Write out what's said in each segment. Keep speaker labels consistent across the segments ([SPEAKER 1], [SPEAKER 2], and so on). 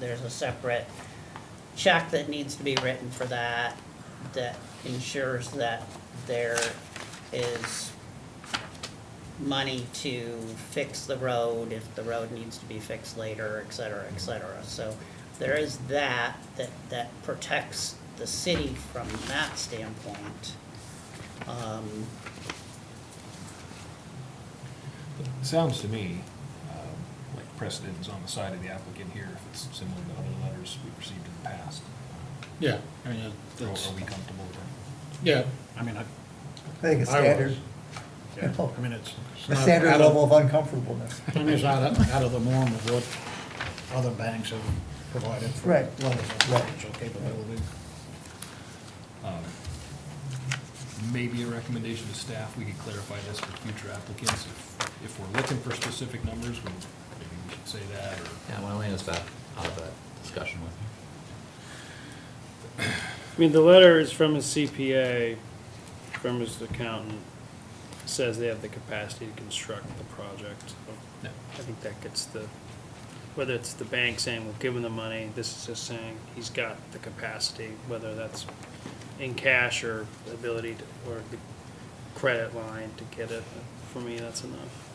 [SPEAKER 1] There's a separate check that needs to be written for that, that ensures that there is money to fix the road if the road needs to be fixed later, et cetera, et cetera. So there is that, that, that protects the city from that standpoint. Um,
[SPEAKER 2] It Sounds to me um, like precedent is on the side of the applicant here, if it's similar to other letters we've received in the past.
[SPEAKER 3] Yeah, I mean, uh,
[SPEAKER 2] Are
[SPEAKER 3] that's,
[SPEAKER 2] are we comfortable with that?
[SPEAKER 3] yeah, I mean, I.
[SPEAKER 4] I think it's
[SPEAKER 3] I was.
[SPEAKER 4] standard,
[SPEAKER 3] Yeah, Oh, I mean, it's. it's
[SPEAKER 4] the
[SPEAKER 3] not
[SPEAKER 4] standard
[SPEAKER 3] out of-
[SPEAKER 4] level of uncomfortableness.
[SPEAKER 3] I mean, it's out of, out of the norm of what other banks have provided for
[SPEAKER 4] Right.
[SPEAKER 3] levels of leverage or capability.
[SPEAKER 2] Um, Maybe a recommendation to staff, we could clarify this for future applicants. If- If we're looking for specific numbers, we- maybe we should say that, or
[SPEAKER 5] Yeah, why don't we just back out of that discussion with you?
[SPEAKER 6] I mean, the letter is from his CPA, from his accountant, says they have the capacity to construct the project.
[SPEAKER 2] Yeah.
[SPEAKER 6] I think that gets the, whether it's the bank saying, we'll give him the money, this is just saying, he's got the capacity, whether that's in cash or ability to, or the credit line to get it, for me, that's enough.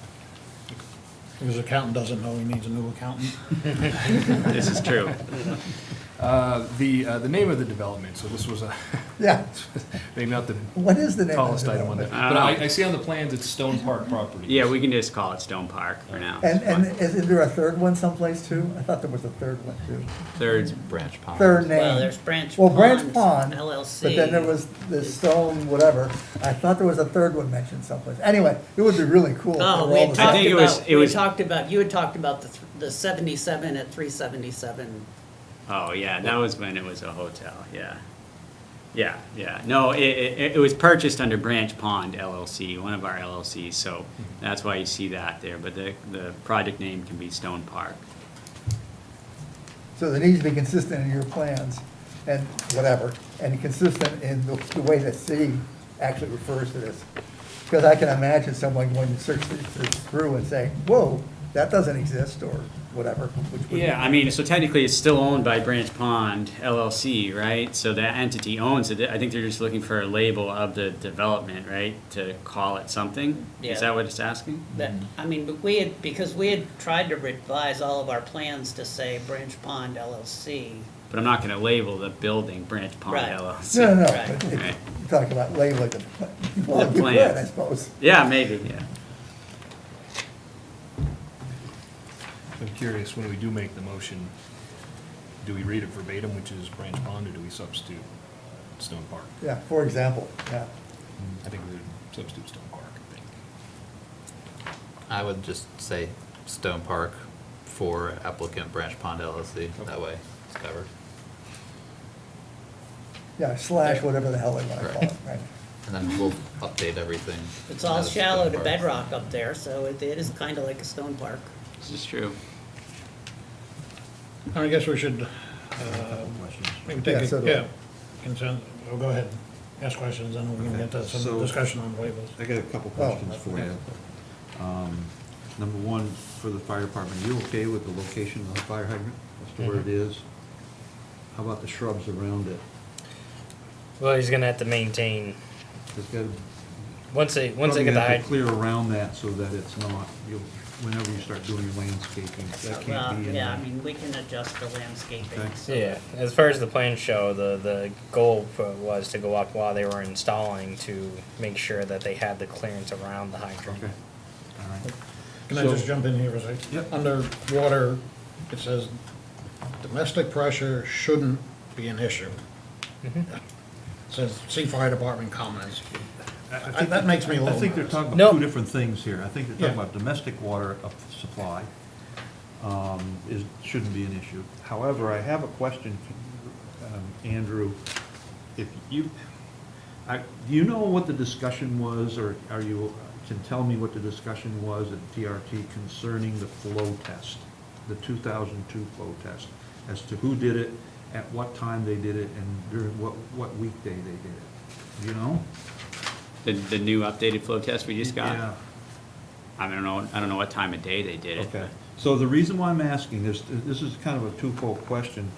[SPEAKER 3] If his accountant doesn't know, he needs a new accountant.
[SPEAKER 7] This is true.
[SPEAKER 2] Uh, The, uh, the name of the development, so this was a,
[SPEAKER 4] Yeah,
[SPEAKER 2] maybe not the
[SPEAKER 4] what is the name of
[SPEAKER 2] tallest
[SPEAKER 4] the
[SPEAKER 2] item on there.
[SPEAKER 4] development?
[SPEAKER 2] But I I see on the plans, it's Stone Park Properties.
[SPEAKER 7] Yeah, we can just call it Stone Park for now.
[SPEAKER 4] And, and is is there a third one someplace too? I thought there was a third one too.
[SPEAKER 5] Third branch pond.
[SPEAKER 4] Third name.
[SPEAKER 1] Well, there's Branch
[SPEAKER 4] Well, Branch
[SPEAKER 1] Pond
[SPEAKER 4] Pond.
[SPEAKER 1] LLC.
[SPEAKER 4] But then there was the stone, whatever. I thought there was a third one mentioned someplace. Anyway, it would be really cool. if
[SPEAKER 1] Oh,
[SPEAKER 4] they were
[SPEAKER 1] we
[SPEAKER 4] all
[SPEAKER 1] had
[SPEAKER 4] the
[SPEAKER 1] talked
[SPEAKER 7] think it was-
[SPEAKER 1] about,
[SPEAKER 7] it
[SPEAKER 1] we had
[SPEAKER 7] was-
[SPEAKER 1] talked about, you had talked about the, th- the seventy-seven at three seventy-seven.
[SPEAKER 7] Oh, yeah, that was when it was a hotel, yeah. Yeah, yeah. No, it, it, it was purchased under Branch Pond LLC, one of our LLCs, so that's why you see that there, but the, the project name can be Stone Park.
[SPEAKER 4] So there needs to be consistent in your plans and whatever, and consistent in the, the way that city actually refers to this. Because I can imagine someone going to search this this through and saying, whoa, that doesn't exist, or whatever, which would.
[SPEAKER 7] Yeah, I mean, so technically it's still owned by Branch Pond LLC, right? So that entity owns it. I think they're just looking for a label of the development, right? To call it something?
[SPEAKER 1] Yeah.
[SPEAKER 7] Is that what it's asking?
[SPEAKER 1] That, I mean, but we had, because we had tried to revise all of our plans to say Branch Pond LLC.
[SPEAKER 7] But I'm not gonna label the building Branch Pond
[SPEAKER 1] Right.
[SPEAKER 7] LLC.
[SPEAKER 4] No, no, no,
[SPEAKER 1] Right.
[SPEAKER 4] but it- you talk about labeling the, well, you
[SPEAKER 7] plan.
[SPEAKER 4] could, I suppose.
[SPEAKER 7] Yeah, maybe, yeah.
[SPEAKER 2] I'm curious, when we do make the motion, do we read it verbatim, which is Branch Pond, or do we substitute Stone Park?
[SPEAKER 4] Yeah, for example, yeah.
[SPEAKER 2] I think we would substitute Stone Park, I think.
[SPEAKER 5] I would just say Stone Park for applicant Branch Pond LLC, that way it's covered.
[SPEAKER 4] Yeah, slash whatever the hell they want to call it, right?
[SPEAKER 5] And then we'll update everything.
[SPEAKER 1] It's all
[SPEAKER 5] as
[SPEAKER 1] shallow
[SPEAKER 5] Stone
[SPEAKER 1] to
[SPEAKER 5] Park.
[SPEAKER 1] bedrock up there, so it, it is kinda like a stone park.
[SPEAKER 7] This is true.
[SPEAKER 3] And I guess we should, uh, maybe
[SPEAKER 4] Yeah,
[SPEAKER 3] take,
[SPEAKER 4] so
[SPEAKER 3] a-
[SPEAKER 4] do I.
[SPEAKER 3] yeah, consent, oh, go ahead, ask questions, and we can get to some
[SPEAKER 8] So-
[SPEAKER 3] discussion on waivers.
[SPEAKER 8] I got a couple
[SPEAKER 4] Oh,
[SPEAKER 8] questions for you. Um, Number one, for the fire department, you okay with the location of the fire hydrant, as to where it is? How about the shrubs around it?
[SPEAKER 9] Well, he's gonna have to maintain
[SPEAKER 8] It's got,
[SPEAKER 9] once they once
[SPEAKER 8] probably
[SPEAKER 9] they get the
[SPEAKER 8] have
[SPEAKER 9] hyd-
[SPEAKER 8] to clear around that so that it's not, you, whenever you start doing your landscaping,
[SPEAKER 1] Well,
[SPEAKER 8] that can't be in
[SPEAKER 1] uh, Yeah, I
[SPEAKER 8] there.
[SPEAKER 1] mean, we can adjust the landscaping,
[SPEAKER 8] Okay.
[SPEAKER 1] so.
[SPEAKER 9] Yeah, as far as the plans show, the the goal for- was to go up while they were installing to make sure that they had the clearance around the hydrant.
[SPEAKER 8] Okay, all right.
[SPEAKER 3] Can I
[SPEAKER 8] So-
[SPEAKER 3] just jump in here for a second?
[SPEAKER 8] Yep.
[SPEAKER 3] Under water, it says domestic pressure shouldn't be an issue. Mm-hmm. Says, see fire department comments.
[SPEAKER 8] I
[SPEAKER 3] I-
[SPEAKER 8] think-
[SPEAKER 3] That makes me a little
[SPEAKER 8] I think they're
[SPEAKER 3] nervous.
[SPEAKER 8] talking
[SPEAKER 9] No.
[SPEAKER 8] about two different things here. I think they're talking
[SPEAKER 3] Yeah.
[SPEAKER 8] about domestic water up- supply um, is, shouldn't be an issue. However, I have a question, um, Andrew. If you, I, do you know what the discussion was, or are you, can tell me what the discussion was at TRT concerning the flow test, the 2002 flow test, as to who did it, at what time they did it, and during what, what weekday they did it? Do you know?
[SPEAKER 7] The, the new updated flow test we just got?
[SPEAKER 8] Yeah.
[SPEAKER 7] I don't know, I don't know what time of day they did it.
[SPEAKER 8] Okay. So the reason why I'm asking this, this is kind of a twofold question.